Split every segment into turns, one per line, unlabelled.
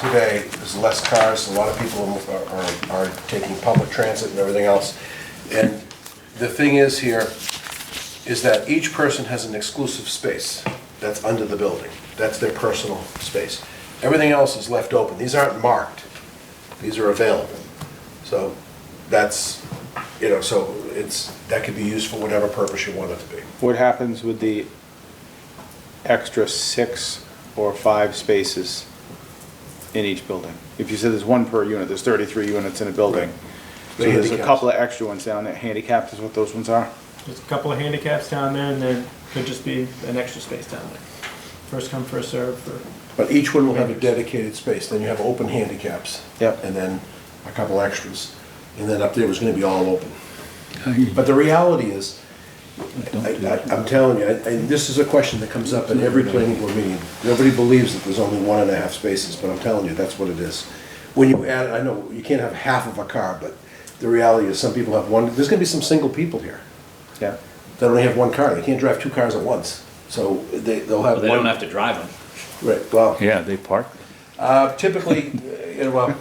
today, there's less cars, a lot of people are, are- are taking public transit and everything else. And the thing is here, is that each person has an exclusive space that's under the building. That's their personal space. Everything else is left open. These aren't marked. These are available. So that's, you know, so it's, that could be used for whatever purpose you want it to be.
What happens with the extra six or five spaces in each building? If you said there's one per unit, there's thirty-three units in a building.
The
So there's a
handicaps.
couple of extra ones down there, handicapped is what those ones are?
There's a couple of handicaps down there, and there could just be an extra space down there. First come, first served for,
But each one will have a dedicated space, then you have open handicaps.
Yep.
And then a couple extras, and then up there was gonna be all open. But the reality is, I, I- I'm telling you, I- I- this is a question that comes up in every planning board meeting. Nobody believes that there's only one and a half spaces, but I'm telling you, that's what it is. When you add, I know, you can't have half of a car, but the reality is, some people have one, there's gonna be some single people here
Yeah.
that only have one car, they can't drive two cars at once. So they, they'll have
Well, they don't
one,
have to drive them.
right, well.
Yeah, they park.
Uh, Typically, uh, you know, well,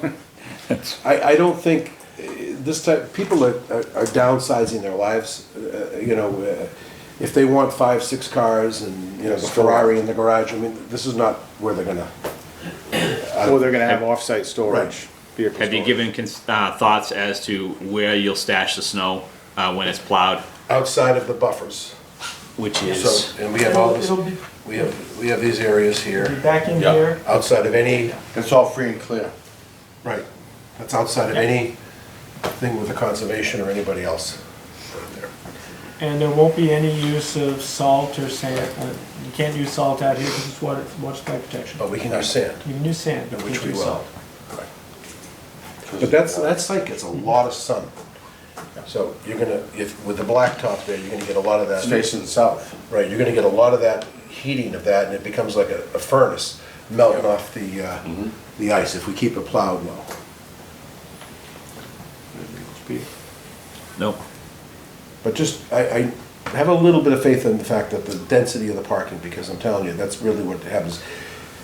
I, I don't think, uh, this type, people are are are downsizing their lives, uh, you know, uh, if they want five, six cars and, you know, the Ferrari in the garage, I mean, this is not where they're gonna,
Or they're gonna have off-site storage,
Right.
vehicle
Have you
storage.
given cons- uh, thoughts as to where you'll stash the snow uh, when it's plowed,
outside of the buffers.
which
So,
is
and we have all this,
It'll- it'll be-
we have, we have these areas
be
here,
back in
Yeah.
here,
outside of any,
It's all free and clear.
right, that's outside of any thing with the conservation or anybody else.
and there won't be any use of salt or sand. Uh, You can't use salt out here because it's water, water supply protection.
But we can use sand.
You can use sand,
No,
but you
Which Oh.
can't
we
use
will.
salt.
Correct. But that's, that site gets a lot of sun. So you're gonna, if, with the blacktop there, you're gonna get a lot of
It's
that,
facing south.
right, you're gonna get a lot of that heating of that, and it becomes like a a furnace melting off the, uh, the ice if we keep it plowed well.
no.
But just, I, I have a little bit of faith in the fact that the density of the parking, because I'm telling you, that's really what happens.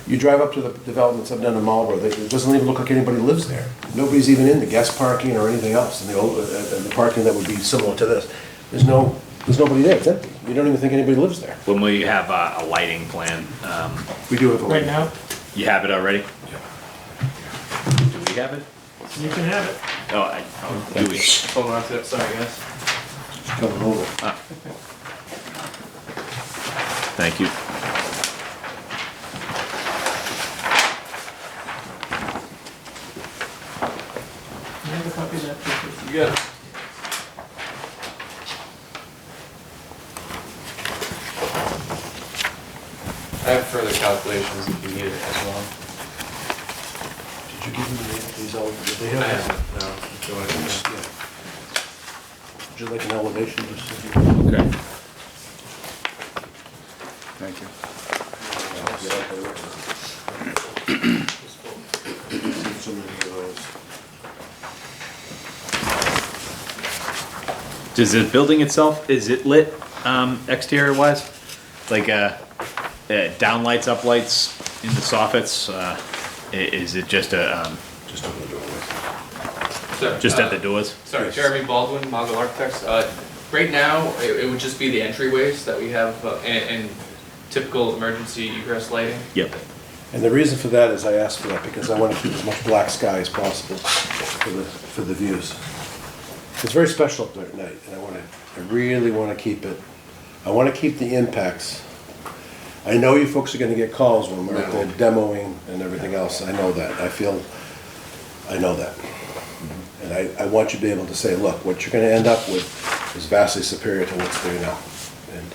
You drive up to the developments I've done in Marlboro, they- it doesn't even look like anybody lives there. Nobody's even in the guest parking or anything else, and the, old- uh, and the parking that would be similar to this. There's no, there's nobody there, it's empty. You don't even think anybody lives there.
When will you have uh, a lighting plan? Um,
We do have a.
Right now,
you have it already? Do we have it?
you can have it.
Oh, I, oh do we? Hold on to it. Sorry, guys.
It's coming over.
Thank you.
You have a copy of that paper.
I have further calculations if you need it as well.
Did you give them the- these, ele- did they
I
have
have
this?
it, no, if you want it.
Yeah. Would you like an elevation? just-
Okay.
Thank you.
So many of those.
Does the building itself is it lit um, exterior wise? Like uh, uh, down lights, up lights in the soffits? Uh, i- is it just a um,
Just open the doorway.
So,
just
uh,
at the doors?
Sorry, Jeremy Baldwin, Mogul Architects. Uh, Right now, it it would just be the entryways that we have uh, and and typical emergency egress lighting.
Yep.
And the reason for that is I asked for that because I want to keep as much black sky as possible for the, for the views. It's very special up there at night, and I want to, I really want to keep it, I want to keep the impacts. I know you folks are going to get calls when we're out there demoing and everything else, I know that, I feel, I know that. And I, I want you to be able to say, look, what you're going to end up with is vastly superior to what's there now. And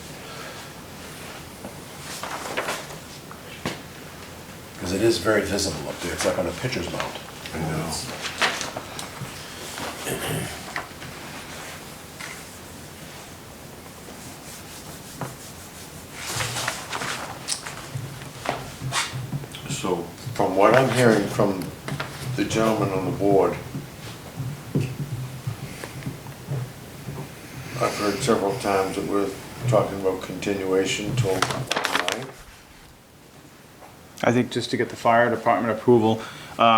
Because it is very visible up there, it's like on a pitcher's mound. I know.
So from what I'm hearing from the gentleman on the board, I've heard several times that we're talking about continuation till nine.
I think just to get the fire department approval, uh,